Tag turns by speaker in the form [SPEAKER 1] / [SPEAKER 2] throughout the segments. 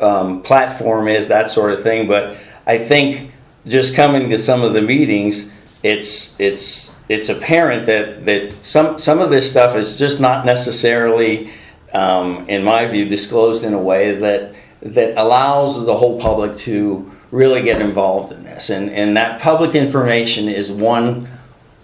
[SPEAKER 1] um, platform is, that sort of thing. But I think just coming to some of the meetings, it's it's it's apparent that that some some of this stuff is just not necessarily, um, in my view, disclosed in a way that that allows the whole public to really get involved in this. And and that public information is one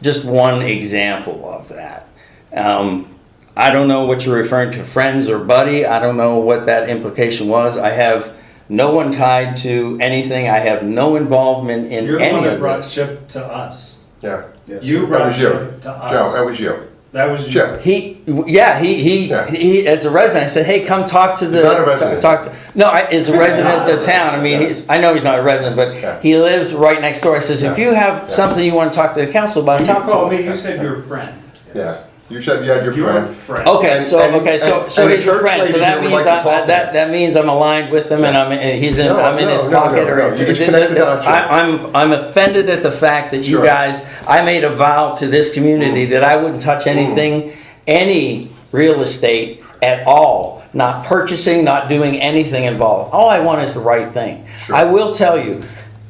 [SPEAKER 1] just one example of that. Um, I don't know what you're referring to, friends or buddy. I don't know what that implication was. I have no one tied to anything. I have no involvement in
[SPEAKER 2] You're the
[SPEAKER 1] any
[SPEAKER 2] one that
[SPEAKER 1] of
[SPEAKER 2] brought
[SPEAKER 1] this.
[SPEAKER 2] Chip to us.
[SPEAKER 3] Yeah.
[SPEAKER 4] Yes.
[SPEAKER 2] You
[SPEAKER 3] That
[SPEAKER 2] brought
[SPEAKER 3] was you.
[SPEAKER 2] Chip to us.
[SPEAKER 3] Joe, that was you.
[SPEAKER 2] That was you.
[SPEAKER 3] Chip.
[SPEAKER 1] He, yeah, he, he,
[SPEAKER 3] Yeah.
[SPEAKER 1] he, as a resident, I said, hey, come talk to the.
[SPEAKER 3] He's not a resident.
[SPEAKER 1] Talk to, no, I, as a resident of the town, I mean,
[SPEAKER 3] Yeah.
[SPEAKER 1] he's, I know he's not a resident,
[SPEAKER 3] Yeah.
[SPEAKER 1] but he lives right next door. I says, if
[SPEAKER 3] Yeah.
[SPEAKER 1] you have
[SPEAKER 3] Yeah.
[SPEAKER 1] something you wanna talk to the council about,
[SPEAKER 2] You
[SPEAKER 1] talk
[SPEAKER 2] called
[SPEAKER 1] to him.
[SPEAKER 2] me, you said you're a friend.
[SPEAKER 3] Yeah. You said you had your
[SPEAKER 2] You're a
[SPEAKER 3] friend.
[SPEAKER 2] friend.
[SPEAKER 1] Okay,
[SPEAKER 3] And-
[SPEAKER 1] so,
[SPEAKER 3] and-
[SPEAKER 1] okay, so,
[SPEAKER 3] and-
[SPEAKER 1] so
[SPEAKER 3] and a
[SPEAKER 1] he's a
[SPEAKER 3] church
[SPEAKER 1] friend, so
[SPEAKER 3] lady
[SPEAKER 1] that
[SPEAKER 3] who would
[SPEAKER 1] means,
[SPEAKER 3] like to
[SPEAKER 1] I-
[SPEAKER 3] talk
[SPEAKER 1] that, that means I'm aligned with him and I'm, and he's in,
[SPEAKER 3] No,
[SPEAKER 1] I'm in his
[SPEAKER 3] no, no,
[SPEAKER 1] pocket
[SPEAKER 3] no,
[SPEAKER 1] or.
[SPEAKER 3] no,
[SPEAKER 1] it's-
[SPEAKER 3] you just
[SPEAKER 1] it-
[SPEAKER 3] connected
[SPEAKER 1] it-
[SPEAKER 3] the dots here.
[SPEAKER 1] I, I'm, I'm offended at the fact that you
[SPEAKER 3] Sure. Mm.
[SPEAKER 1] guys, I made a vow to this community that I wouldn't touch anything, any real estate at all. Not purchasing, not doing anything involved. All I want is the right thing.
[SPEAKER 3] Sure.
[SPEAKER 1] I will tell you,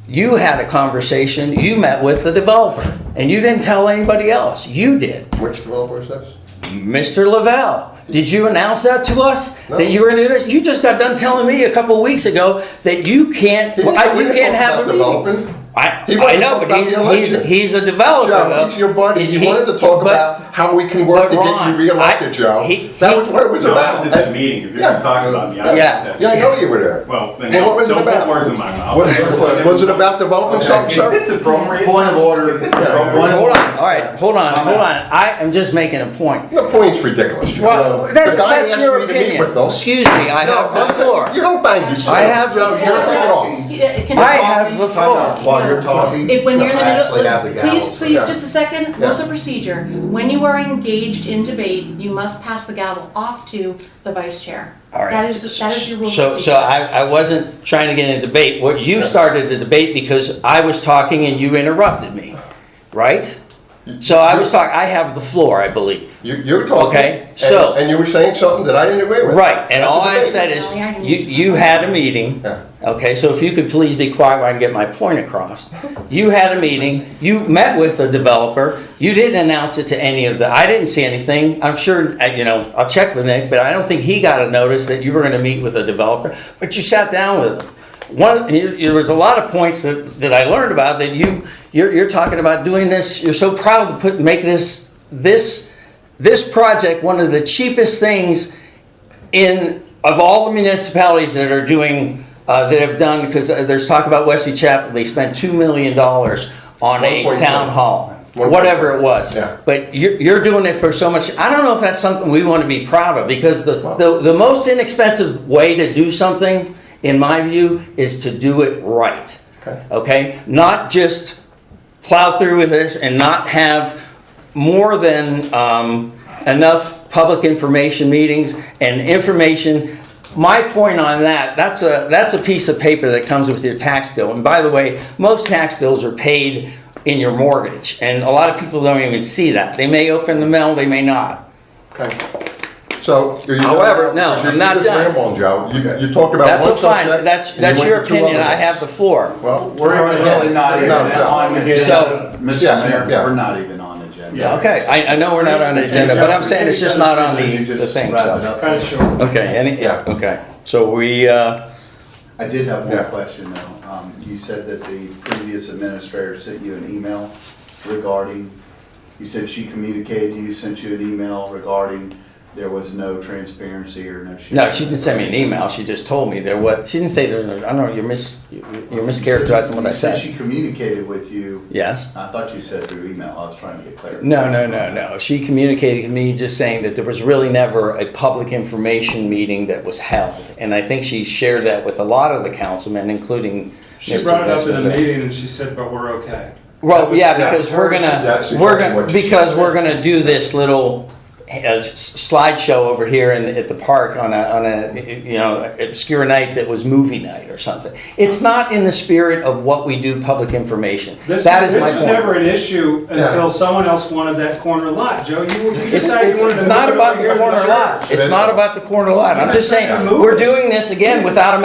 [SPEAKER 1] you had a conversation, you met with the developer and you didn't tell anybody else. You did.
[SPEAKER 3] Which developer is this?
[SPEAKER 1] Mr. Lavelle, did you announce that to us?
[SPEAKER 3] No.
[SPEAKER 1] That you were gonna do this? You just got done telling me a couple weeks ago that you can't,
[SPEAKER 3] He didn't-
[SPEAKER 1] I-
[SPEAKER 3] he
[SPEAKER 1] you
[SPEAKER 3] didn't
[SPEAKER 1] can't
[SPEAKER 3] talk
[SPEAKER 1] have a
[SPEAKER 3] about
[SPEAKER 1] meeting.
[SPEAKER 3] development.
[SPEAKER 1] I,
[SPEAKER 3] He wanted
[SPEAKER 1] I
[SPEAKER 3] to
[SPEAKER 1] know,
[SPEAKER 3] talk
[SPEAKER 1] but
[SPEAKER 3] about
[SPEAKER 1] he's,
[SPEAKER 3] the
[SPEAKER 1] he's,
[SPEAKER 3] election.
[SPEAKER 1] he's a developer
[SPEAKER 3] Joe,
[SPEAKER 1] though.
[SPEAKER 3] he's your buddy.
[SPEAKER 1] He-
[SPEAKER 3] You
[SPEAKER 1] he-
[SPEAKER 3] wanted to talk
[SPEAKER 1] but-
[SPEAKER 3] about how we can
[SPEAKER 1] but
[SPEAKER 3] work to get
[SPEAKER 1] Ron,
[SPEAKER 3] you reelected,
[SPEAKER 1] I-
[SPEAKER 3] Joe.
[SPEAKER 1] he-
[SPEAKER 3] That
[SPEAKER 1] he-
[SPEAKER 3] was what it was
[SPEAKER 5] No, I
[SPEAKER 3] about.
[SPEAKER 5] was at that
[SPEAKER 3] And-
[SPEAKER 5] meeting, if you're
[SPEAKER 3] Yeah.
[SPEAKER 5] gonna talk about me, I was
[SPEAKER 1] Yeah.
[SPEAKER 5] at that.
[SPEAKER 3] Yeah, I know you were there.
[SPEAKER 5] Well, then,
[SPEAKER 3] Well, what was it
[SPEAKER 5] don't
[SPEAKER 3] about?
[SPEAKER 5] put words in my mouth.
[SPEAKER 3] What- what- Was it about developing something,
[SPEAKER 5] Is
[SPEAKER 3] sir?
[SPEAKER 5] this appropriate?
[SPEAKER 4] Point of order.
[SPEAKER 5] Is this
[SPEAKER 4] Yeah.
[SPEAKER 1] Hold
[SPEAKER 4] Point
[SPEAKER 5] appropriate?
[SPEAKER 4] of-
[SPEAKER 1] on, all right, hold on,
[SPEAKER 4] I'm
[SPEAKER 1] hold
[SPEAKER 4] out.
[SPEAKER 1] on. I am just making a point.
[SPEAKER 3] The point's ridiculous, Joe.
[SPEAKER 1] Well,
[SPEAKER 3] The
[SPEAKER 1] that's,
[SPEAKER 3] guy
[SPEAKER 1] that's
[SPEAKER 3] asked
[SPEAKER 1] your
[SPEAKER 3] me to meet
[SPEAKER 1] opinion.
[SPEAKER 3] with them.
[SPEAKER 1] Excuse me, I
[SPEAKER 3] No,
[SPEAKER 1] have the
[SPEAKER 3] that's-
[SPEAKER 1] floor.
[SPEAKER 3] You don't bang yourself.
[SPEAKER 1] I have the
[SPEAKER 3] You're wrong.
[SPEAKER 6] Can
[SPEAKER 1] I
[SPEAKER 6] I
[SPEAKER 1] have the
[SPEAKER 4] Time
[SPEAKER 1] floor.
[SPEAKER 4] out. While you're talking,
[SPEAKER 6] If when you're in the
[SPEAKER 4] I actually have the
[SPEAKER 6] middle,
[SPEAKER 4] gavel.
[SPEAKER 6] please, please,
[SPEAKER 3] yeah.
[SPEAKER 6] just a second,
[SPEAKER 3] Yeah.
[SPEAKER 6] what's the procedure? When you are engaged in debate, you must pass the gavel off to the vice chair.
[SPEAKER 1] All right.
[SPEAKER 6] That is, that is your rule. of
[SPEAKER 1] So, so
[SPEAKER 6] procedure.
[SPEAKER 1] I, I wasn't trying to get in a debate. What you started the debate because I was talking and you interrupted me, right? So I was talking, I have the floor, I believe.
[SPEAKER 3] You, you were talking.
[SPEAKER 1] Okay,
[SPEAKER 3] and-
[SPEAKER 1] so-
[SPEAKER 3] And you were saying something that I didn't agree with.
[SPEAKER 1] Right, and
[SPEAKER 3] That's
[SPEAKER 1] all
[SPEAKER 3] a
[SPEAKER 1] I've
[SPEAKER 3] debate.
[SPEAKER 1] said is, you, you had a meeting.
[SPEAKER 3] Yeah.
[SPEAKER 1] Okay, so if you could please be quiet while I get my point across. You had a meeting, you met with the developer, you didn't announce it to any of the, I didn't see anything. I'm sure, uh, you know, I'll check with Nick, but I don't think he got a notice that you were gonna meet with a developer, but you sat down with him. One, you- there was a lot of points that, that I learned about that you, you're, you're talking about doing this, you're so proud to put, make this, this, this project one of the cheapest things in, of all the municipalities that are doing, uh, that have done, because there's talk about Wesley Chapel, they spent $2 million on a
[SPEAKER 3] 1.1.
[SPEAKER 1] town hall,
[SPEAKER 3] One-
[SPEAKER 1] whatever it was.
[SPEAKER 3] Yeah.
[SPEAKER 1] But you're, you're doing it for so much, I don't know if that's something we want to be proud of, because the, the, the most inexpensive way to do something, in my view, is to do it right.
[SPEAKER 3] Okay.
[SPEAKER 1] Okay? Not just plow through with this and not have more than um, enough public information meetings and information. My point on that, that's a, that's a piece of paper that comes with your tax bill. And by the way, most tax bills are paid in your mortgage. And a lot of people don't even see that. They may open the mail, they may not.
[SPEAKER 3] Okay. So. you're-
[SPEAKER 1] However, no,
[SPEAKER 3] you're-
[SPEAKER 1] I'm
[SPEAKER 3] you're
[SPEAKER 1] not
[SPEAKER 3] just
[SPEAKER 1] done.
[SPEAKER 3] rambling, Joe. You, you talked about one
[SPEAKER 1] That's a
[SPEAKER 3] subject.
[SPEAKER 1] fine, that's,
[SPEAKER 3] and you
[SPEAKER 1] that's
[SPEAKER 3] went
[SPEAKER 1] your
[SPEAKER 3] to two
[SPEAKER 1] opinion,
[SPEAKER 3] other
[SPEAKER 1] I
[SPEAKER 3] ones.
[SPEAKER 1] have the floor.
[SPEAKER 3] Well, we're.
[SPEAKER 4] We're really not even
[SPEAKER 3] No, no.
[SPEAKER 4] on the
[SPEAKER 1] So-
[SPEAKER 4] agenda.
[SPEAKER 3] Yeah,
[SPEAKER 4] Mr. Mayor,
[SPEAKER 3] yeah.
[SPEAKER 4] we're not even on the agenda.
[SPEAKER 2] Yeah.
[SPEAKER 1] Okay, I, I know we're not on the agenda, but I'm saying it's just not on the,
[SPEAKER 4] You
[SPEAKER 1] the
[SPEAKER 4] just
[SPEAKER 1] thing,
[SPEAKER 4] wrap it
[SPEAKER 1] so.
[SPEAKER 4] up.
[SPEAKER 2] Cut it short.
[SPEAKER 1] Okay, any,
[SPEAKER 3] Yeah.
[SPEAKER 1] okay, so we, uh,
[SPEAKER 4] I did have one
[SPEAKER 3] Yeah.
[SPEAKER 4] question though. Um, You said that the previous administrator sent you an email regarding, you said she communicated, you sent you an email regarding there was no transparency or no.
[SPEAKER 1] no, she didn't send me an email, she just told me there was, she didn't say there was, no- I don't know, you're mis, you're mischaracterizing what I
[SPEAKER 4] You said
[SPEAKER 1] said.
[SPEAKER 4] she communicated with you.
[SPEAKER 1] Yes?
[SPEAKER 4] I thought you said through email. I was trying to get clarification.
[SPEAKER 1] No, no, no, no, she communicated to me just saying that there was really never a public information meeting that was held. And I think she shared that with a lot of the councilmen, including
[SPEAKER 2] She
[SPEAKER 1] Mr.
[SPEAKER 2] brought it up in a
[SPEAKER 1] Westman's.
[SPEAKER 2] meeting and she said, but we're okay.
[SPEAKER 1] Well, yeah,
[SPEAKER 3] yeah.
[SPEAKER 1] because we're gonna,
[SPEAKER 3] That's
[SPEAKER 1] we're
[SPEAKER 3] exactly
[SPEAKER 1] gonna,
[SPEAKER 3] what you
[SPEAKER 1] because
[SPEAKER 3] said.
[SPEAKER 1] we're gonna do this little uh, s- slideshow over here in, at the park on a, on a, you know, obscure night that was movie night or something. It's not in the spirit of what we do public information.
[SPEAKER 2] This,
[SPEAKER 1] That is
[SPEAKER 2] this
[SPEAKER 1] my
[SPEAKER 2] was never
[SPEAKER 1] point.
[SPEAKER 2] an issue
[SPEAKER 3] Yeah.
[SPEAKER 2] until someone else wanted that corner lot. Joe, you, you
[SPEAKER 1] It's,
[SPEAKER 2] decided
[SPEAKER 1] it's,
[SPEAKER 2] you wanted to.
[SPEAKER 1] it's
[SPEAKER 2] move
[SPEAKER 1] not
[SPEAKER 2] it
[SPEAKER 1] about
[SPEAKER 2] over
[SPEAKER 1] the
[SPEAKER 2] here to
[SPEAKER 1] corner
[SPEAKER 2] church.
[SPEAKER 1] lot. It's not about the corner lot. I'm just saying,
[SPEAKER 2] Move it.
[SPEAKER 1] we're doing this again without a